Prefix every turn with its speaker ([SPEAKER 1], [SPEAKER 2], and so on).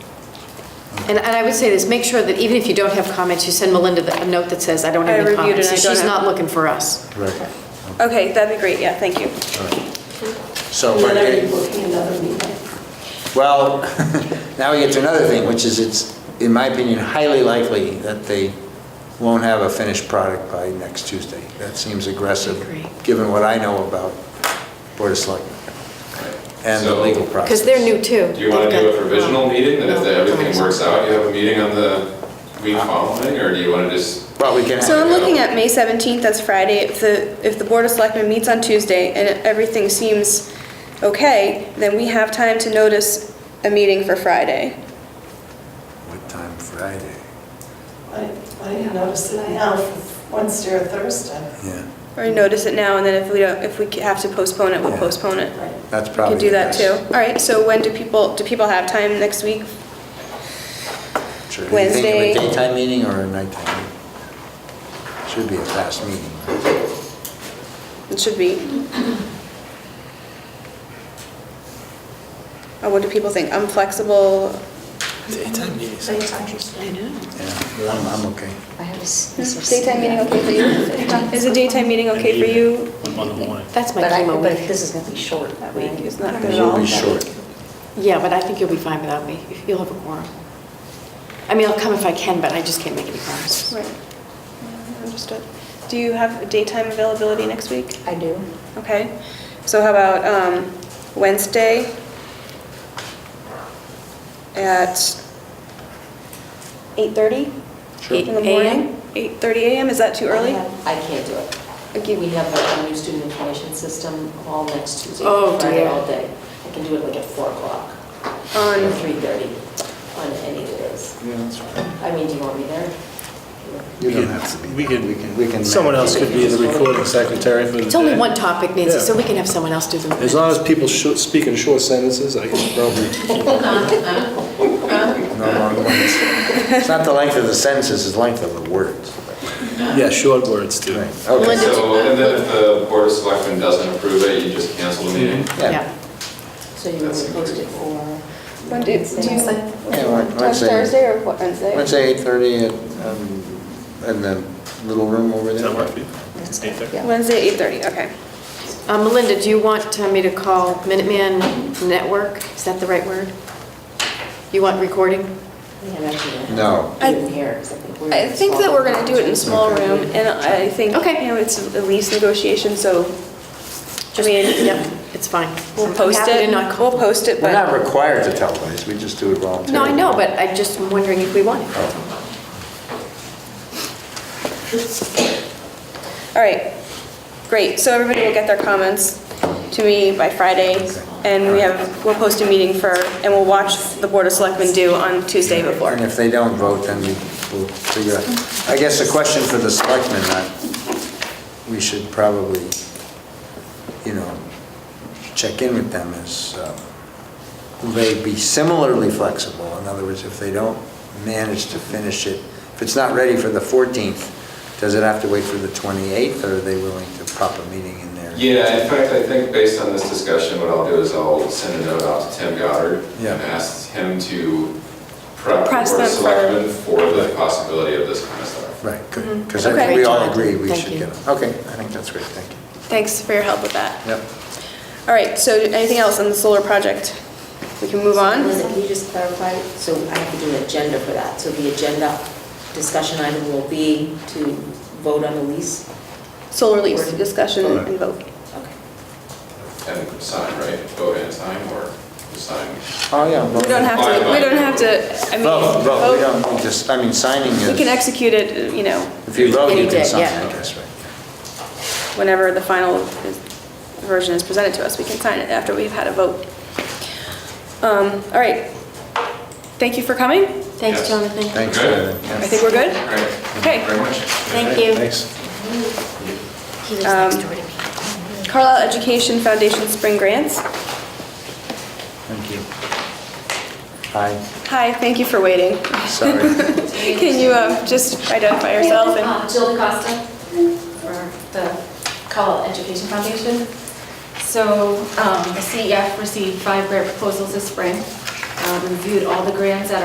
[SPEAKER 1] And, and I would say this, make sure that even if you don't have comments, you send Melinda the- a note that says, I don't
[SPEAKER 2] I
[SPEAKER 1] have any
[SPEAKER 2] reviewed it,
[SPEAKER 1] comments.
[SPEAKER 2] I
[SPEAKER 1] So
[SPEAKER 2] don't
[SPEAKER 1] She's
[SPEAKER 2] have-
[SPEAKER 1] not looking for us.
[SPEAKER 3] Right.
[SPEAKER 2] Okay, that'd be great, yeah, thank you.
[SPEAKER 3] So,
[SPEAKER 4] And
[SPEAKER 3] but,
[SPEAKER 4] then I'm
[SPEAKER 3] it-
[SPEAKER 4] booking another meeting.
[SPEAKER 3] well, now we get to another thing, which is it's, in my opinion, highly likely that they won't have a finished product by next Tuesday. That seems aggressive,
[SPEAKER 1] agree.
[SPEAKER 3] given what I know about Board of Selectmen and the
[SPEAKER 5] So-
[SPEAKER 3] legal process.
[SPEAKER 1] Because they're new too.
[SPEAKER 5] Do you want to do a provisional meeting, that if
[SPEAKER 1] Um, No.
[SPEAKER 5] everything works out, you have a meeting on the week following, or do you want to just?
[SPEAKER 3] Well, we can have.
[SPEAKER 2] So I'm looking at May 17th, that's Friday. If the, if the Board of Selectmen meets on Tuesday and everything seems okay, then we have time to notice a meeting for Friday.
[SPEAKER 3] What time Friday?
[SPEAKER 4] I I didn't notice it now for Wednesday or Thursday.
[SPEAKER 3] Yeah,
[SPEAKER 2] Or notice it now, and then if we don't, if we have to postpone it, we'll
[SPEAKER 3] Yeah.
[SPEAKER 2] postpone it.
[SPEAKER 4] Right.
[SPEAKER 3] that's
[SPEAKER 2] We
[SPEAKER 3] probably.
[SPEAKER 2] could do
[SPEAKER 3] the
[SPEAKER 2] that
[SPEAKER 3] best.
[SPEAKER 2] too. All right, so when do people, do people have time next week?
[SPEAKER 3] Sure. Do you think of
[SPEAKER 2] Wednesday.
[SPEAKER 3] a daytime meeting or a nighttime? meeting? Should be a fast meeting.
[SPEAKER 2] It should be. Or Oh, what do people think? I'm flexible.
[SPEAKER 3] Daytime meetings.
[SPEAKER 1] I know.
[SPEAKER 3] Yeah, I'm, I'm okay.
[SPEAKER 6] I have a s- a
[SPEAKER 2] Hmm.
[SPEAKER 6] s-
[SPEAKER 2] Daytime meeting okay for you? Is a daytime meeting okay for you?
[SPEAKER 7] On the morning.
[SPEAKER 1] That's my
[SPEAKER 6] But I,
[SPEAKER 1] chemo
[SPEAKER 6] but
[SPEAKER 1] week.
[SPEAKER 6] this is gonna be short.
[SPEAKER 2] That week
[SPEAKER 6] right?
[SPEAKER 2] is not good at
[SPEAKER 3] It'll
[SPEAKER 2] all.
[SPEAKER 3] be short.
[SPEAKER 1] Yeah, but I think you'll be fine without me. You'll have a quorum. I mean, I'll come if I can, but I just can't make any promises.
[SPEAKER 2] Right. Understood. Do you have daytime availability next week?
[SPEAKER 6] I do.
[SPEAKER 2] Okay. So how about um, Wednesday at 8:30?
[SPEAKER 3] Sure.
[SPEAKER 2] In the morning? 8:30 a.m., is that too early?
[SPEAKER 6] I have- I can't do it. Again, we have a new student information system all next Tuesday,
[SPEAKER 1] Oh,
[SPEAKER 6] Friday,
[SPEAKER 1] dear.
[SPEAKER 6] all day. I can do it like at 4 o'clock or
[SPEAKER 2] On,
[SPEAKER 6] 3:30 on any of those.
[SPEAKER 3] Yeah, that's fine.
[SPEAKER 6] I mean, do you want me there?
[SPEAKER 3] You don't have to be.
[SPEAKER 7] We
[SPEAKER 3] we
[SPEAKER 7] can,
[SPEAKER 3] can- we can
[SPEAKER 7] someone
[SPEAKER 3] manage.
[SPEAKER 7] else could be the recording secretary for the
[SPEAKER 1] It's only
[SPEAKER 7] day.
[SPEAKER 1] one topic, Nancy,
[SPEAKER 7] Yeah.
[SPEAKER 1] so we can have someone else do the
[SPEAKER 7] As long as people sho- speak in short sentences, I can probably,
[SPEAKER 3] No long ones. It's not the length of the sentences, it's the length of the words.
[SPEAKER 7] yeah, short words too.
[SPEAKER 3] Right, okay.
[SPEAKER 1] Melinda-
[SPEAKER 5] So, and then if the board of selectmen doesn't approve it, you just cancel the meeting?
[SPEAKER 3] Yeah.
[SPEAKER 6] So you want to post it for?
[SPEAKER 2] when do, do you,
[SPEAKER 6] Wednesday?
[SPEAKER 3] Yeah, Wed-
[SPEAKER 2] on
[SPEAKER 3] Wednesday.
[SPEAKER 2] Thursday or what, Wednesday?
[SPEAKER 3] Wednesday, 8:30 at, um, in the little room over
[SPEAKER 7] Does
[SPEAKER 3] there.
[SPEAKER 7] that work for you? It's eight thirty.
[SPEAKER 6] Yeah.
[SPEAKER 2] Wednesday, 8:30, okay.
[SPEAKER 1] Uh, Melinda, do you want uh, me to call Minuteman Network? Is that the right word? You want recording?
[SPEAKER 6] Yeah, that's it.
[SPEAKER 3] No.
[SPEAKER 6] Even here, 'cause I think we're.
[SPEAKER 2] I think that we're gonna do it in a small room, and I think,
[SPEAKER 1] Okay.
[SPEAKER 2] you know, it's a lease negotiation, so, I mean,
[SPEAKER 1] Yep, it's fine.
[SPEAKER 2] we'll
[SPEAKER 1] I'm
[SPEAKER 2] post
[SPEAKER 1] happy
[SPEAKER 2] it,
[SPEAKER 1] to not
[SPEAKER 2] we'll
[SPEAKER 1] call.
[SPEAKER 2] post it,
[SPEAKER 3] We're not
[SPEAKER 2] but
[SPEAKER 3] required to televise, we just do it voluntarily.
[SPEAKER 1] No, I know, but I'm just wondering if we want it.
[SPEAKER 2] All right, great, so everybody will get their comments to me by Friday, and we have, we'll post a meeting for, and we'll watch the Board of Selectmen do on Tuesday before.
[SPEAKER 3] And if they don't vote, then we- we'll figure out. I guess the question for the selectmen, uh, we should probably, you know, check in with them is, uh, will they be similarly flexible? In other words, if they don't manage to finish it, if it's not ready for the 14th, does it have to wait for the 28th, or are they willing to pop a meeting in there?
[SPEAKER 5] Yeah, in fact, I think based on this discussion, what I'll do is I'll send a note out to Tim Goddard
[SPEAKER 3] Yeah.
[SPEAKER 5] and ask him to prep the board of
[SPEAKER 2] Press them for-
[SPEAKER 5] selectmen for the possibility of this kind of stuff.
[SPEAKER 3] Right, good, because I think
[SPEAKER 2] Mm-hmm. Okay.
[SPEAKER 3] we all agree we
[SPEAKER 1] Thank
[SPEAKER 3] should
[SPEAKER 1] you.
[SPEAKER 3] get them. Okay, I think that's great, thank you.
[SPEAKER 2] Thanks for your help with that.
[SPEAKER 3] Yep.
[SPEAKER 2] All right, so anything else on the solar project? We can move on?
[SPEAKER 6] Melissa, can you just clarify, so I have to do an agenda for that, so the agenda discussion item will be to vote on the lease?
[SPEAKER 2] Solar lease discussion and vote.
[SPEAKER 6] Okay.
[SPEAKER 5] And sign, right? Vote and sign, or sign?
[SPEAKER 3] Oh, yeah.
[SPEAKER 2] We don't have to, we don't have to, I mean,
[SPEAKER 3] Vote, vote, we
[SPEAKER 2] vote,
[SPEAKER 3] don't, we just, I mean, signing
[SPEAKER 2] we can
[SPEAKER 3] is,
[SPEAKER 2] execute it, uh, you know,
[SPEAKER 3] if you vote,
[SPEAKER 1] Any
[SPEAKER 3] you
[SPEAKER 1] day,
[SPEAKER 3] can sign,
[SPEAKER 1] yeah.
[SPEAKER 3] I guess, right?
[SPEAKER 2] whenever the final is- version is presented to us, we can sign it after we've had a vote. Um, All right. Thank you for coming.
[SPEAKER 1] Thanks,
[SPEAKER 5] Yes.
[SPEAKER 1] Jonathan.
[SPEAKER 3] Thanks.
[SPEAKER 5] Okay.
[SPEAKER 3] Jonathan. Yeah.
[SPEAKER 2] I think we're good.
[SPEAKER 5] All right,
[SPEAKER 2] Okay.
[SPEAKER 5] thank you very much.
[SPEAKER 1] Thank you.
[SPEAKER 7] Thanks.
[SPEAKER 6] He lives
[SPEAKER 2] next door
[SPEAKER 6] to me.
[SPEAKER 2] Um, Carlisle Education Foundation Spring Grants.
[SPEAKER 3] Thank you. Hi,
[SPEAKER 2] Hi, thank you for waiting.
[SPEAKER 3] sorry.
[SPEAKER 2] Can you um, just identify yourself and...
[SPEAKER 8] Uh, Jill DaCosta for the Call Education Foundation. So E um, the CEF received five grant proposals this spring, uh, reviewed all the grants that